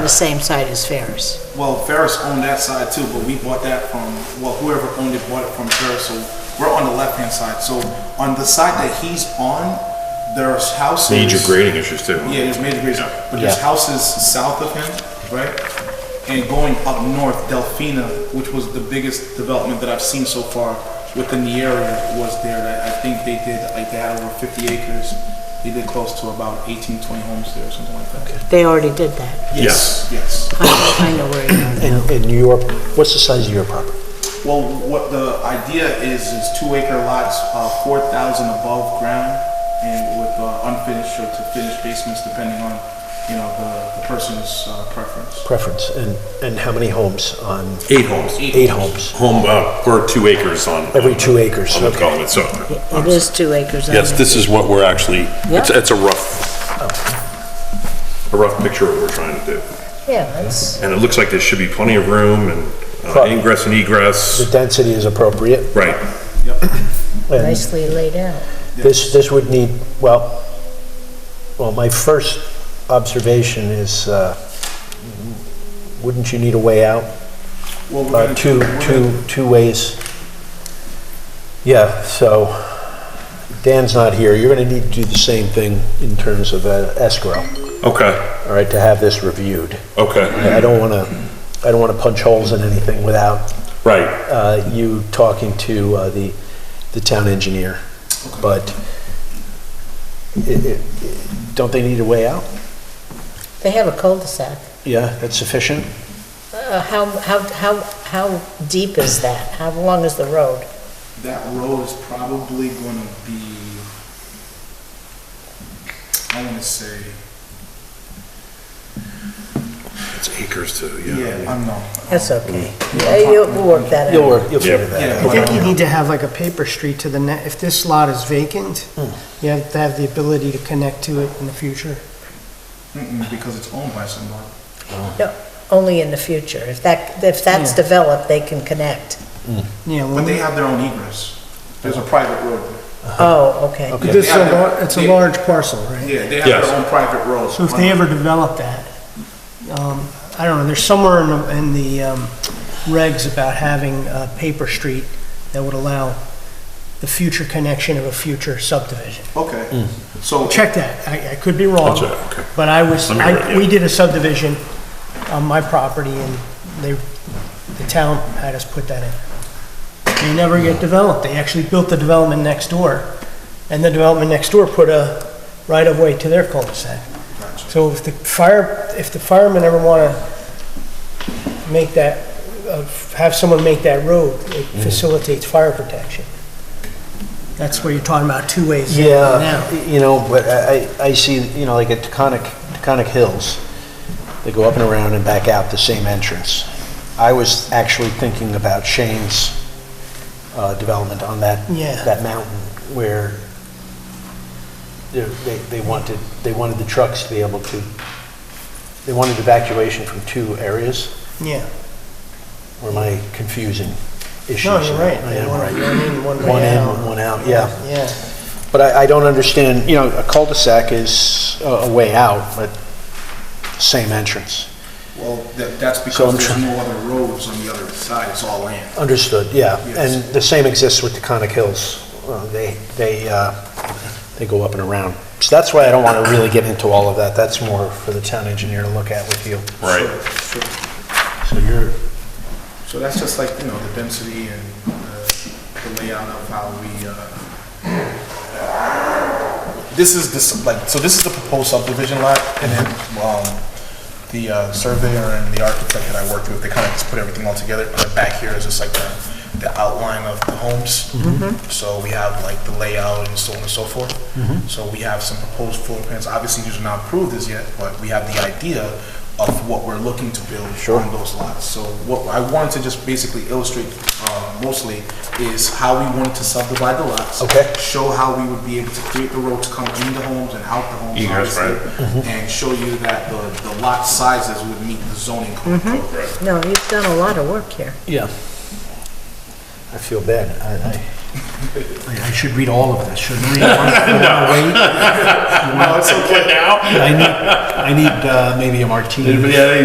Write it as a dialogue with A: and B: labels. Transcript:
A: the same side as Ferris.
B: Well, Ferris owned that side too, but we bought that from, well, whoever owned it bought it from Ferris, so we're on the left-hand side. So on the side that he's on, there's houses.
C: Major grading issues too.
B: Yeah, there's major grades, but there's
D: Yeah.
B: houses south of him, right? And going up north, Delphina, which was the biggest development that I've seen so far within the area, was there. That I think they did, like, they had over 50 acres. They did close to about 18, 20 homes there, or something like that.
A: They already did that.
B: Yes, yes.
A: I know- I know where you are.
D: And, and your, what's the size of your property?
B: Well, what the idea is, is two acre lots, uh, four thousand above ground and with uh, unfinished or to finished basements depending on, you know, the, the person's uh, preference.
D: Preference, and, and how many homes on,
C: Eight homes.
D: eight homes,
C: Home, uh, or two acres on.
D: every two acres,
C: On the
D: okay.
C: development, so.
A: It is two acres. on
C: Yes,
A: it.
C: this is what we're actually, it's,
A: Yeah.
C: it's a rough, a
D: Oh.
C: rough picture of what we're trying to do.
A: Yeah, that's,
C: And it looks like there should be plenty of room and uh,
D: Right.
C: ingress and
D: The
C: egress.
D: density is appropriate,
C: Right.
D: and
A: nicely laid out.
D: this, this would need, well, well, my first observation is, uh, wouldn't you need a way out?
B: Well, we're
D: Uh,
B: gonna,
D: two,
B: we're gonna-
D: two, two ways. Yeah, so Dan's not here, you're gonna need to do the same thing in terms of uh, escrow,
C: Okay,
D: all right, to have this reviewed.
C: okay,
D: I I don't wanna, I don't wanna punch holes in anything without
C: right.
D: uh, you talking to uh, the, the town engineer, but it- it- don't they need a way out?
A: They have a cul-de-sac.
D: Yeah, that's sufficient?
A: Uh, How, how, how, how deep is that? How long is the road?
B: that road is probably gonna be, I wanna say,
C: It's acres too,
B: yeah,
C: yeah.
B: I'm not.
A: That's okay. Yeah, You'll work that
D: You'll,
A: out.
D: work- you'll figure that
B: Yeah.
D: out.
E: I think you need to have like a paper street to the net, if this lot is vacant,
B: Hmm.
E: you have to have the ability to connect to it in the future.
B: Mm-mm, because it's owned by someone.
A: Only in the future. If that, if that's
E: Yeah.
A: developed, they can connect.
E: Yeah,
B: But
E: when
B: they
E: they,
B: have their own egress. There's a private road.
A: Oh, okay.
E: this is
B: They have
E: a,
B: their-
E: lar- it's a
B: they-
E: large parcel, right?
B: Yeah, they have
C: Yes.
B: their own private road.
E: So if they ever develop that, um, I don't know, there's somewhere in the, in the, um, regs about having a paper street that would allow the future connection of a future subdivision.
D: Mm.
B: Okay, so.
E: Check that, I, I could be wrong.
C: I'll check, okay.
E: But I was,
C: Let me
E: I-
C: write, yeah.
E: we did a subdivision on my property and they, the town had us put that in. They never get developed. They actually built the development next door. And the development next door put a right-of-way to their cul-de-sac. So if the fire, if the firemen ever want to make that, uh, have someone make that road, it facilitates fire protection. That's where you're talking about two ways in and out.
D: Yeah, you know, but I, I I see, you know, like at Taconic, Taconic Hills, they go up and around and back out the same entrance. I was actually thinking about Shane's uh, development on that,
E: Yeah.
D: that mountain where they, they they wanted, they wanted the trucks to be able to, they wanted evacuation from two areas.
E: Yeah.
D: Were my confusing issues?
E: No, you're right.
D: I
E: They
D: am
E: want
D: right.
E: One in, one
D: One
E: way
D: in,
E: out.
D: one out, yeah.
E: Yeah.
D: But I, I don't understand, you know, a cul-de-sac is a- a way out, but same entrance.
B: Well, that, that's
D: So I'm
B: because there's
D: try-
B: no other roads on the other side, it's all land.
D: Understood, yeah.
B: Yes.
D: And the same exists with the Conic Hills. Uh, They, they, uh, they go up and around. So that's why I don't want to really get into all of that. That's more for the town engineer to look at with you.
C: Right.
B: So- so-
D: So you're,
B: So that's just like, you know, the density and uh, the layout of how we, uh, this is this, like, so this is the proposed subdivision lot, and then, um, the uh, surveyor and the architect that I worked with, they kind of just put everything all together, put it back here as just like the, the outline of the homes. So we have like the layout and so on and so forth. So we have some proposed floor plans, obviously these are not approved as yet, but we have the idea of what we're looking to build on those lots. So what I wanted to just basically illustrate, uh, mostly, is how we wanted to subdivide the lots
D: Okay.
B: show how we would be able to create the road to come in the homes and out the homes,
C: Egress,
B: obviously. And show you that the, the lot sizes would meet the zoning code.
A: No, you've done a lot of work here.
D: yeah. I feel bad. I, I, I should read all of this, shouldn't I? No.
C: Now?
D: I need, I need uh, maybe a martini.
C: Anybody have any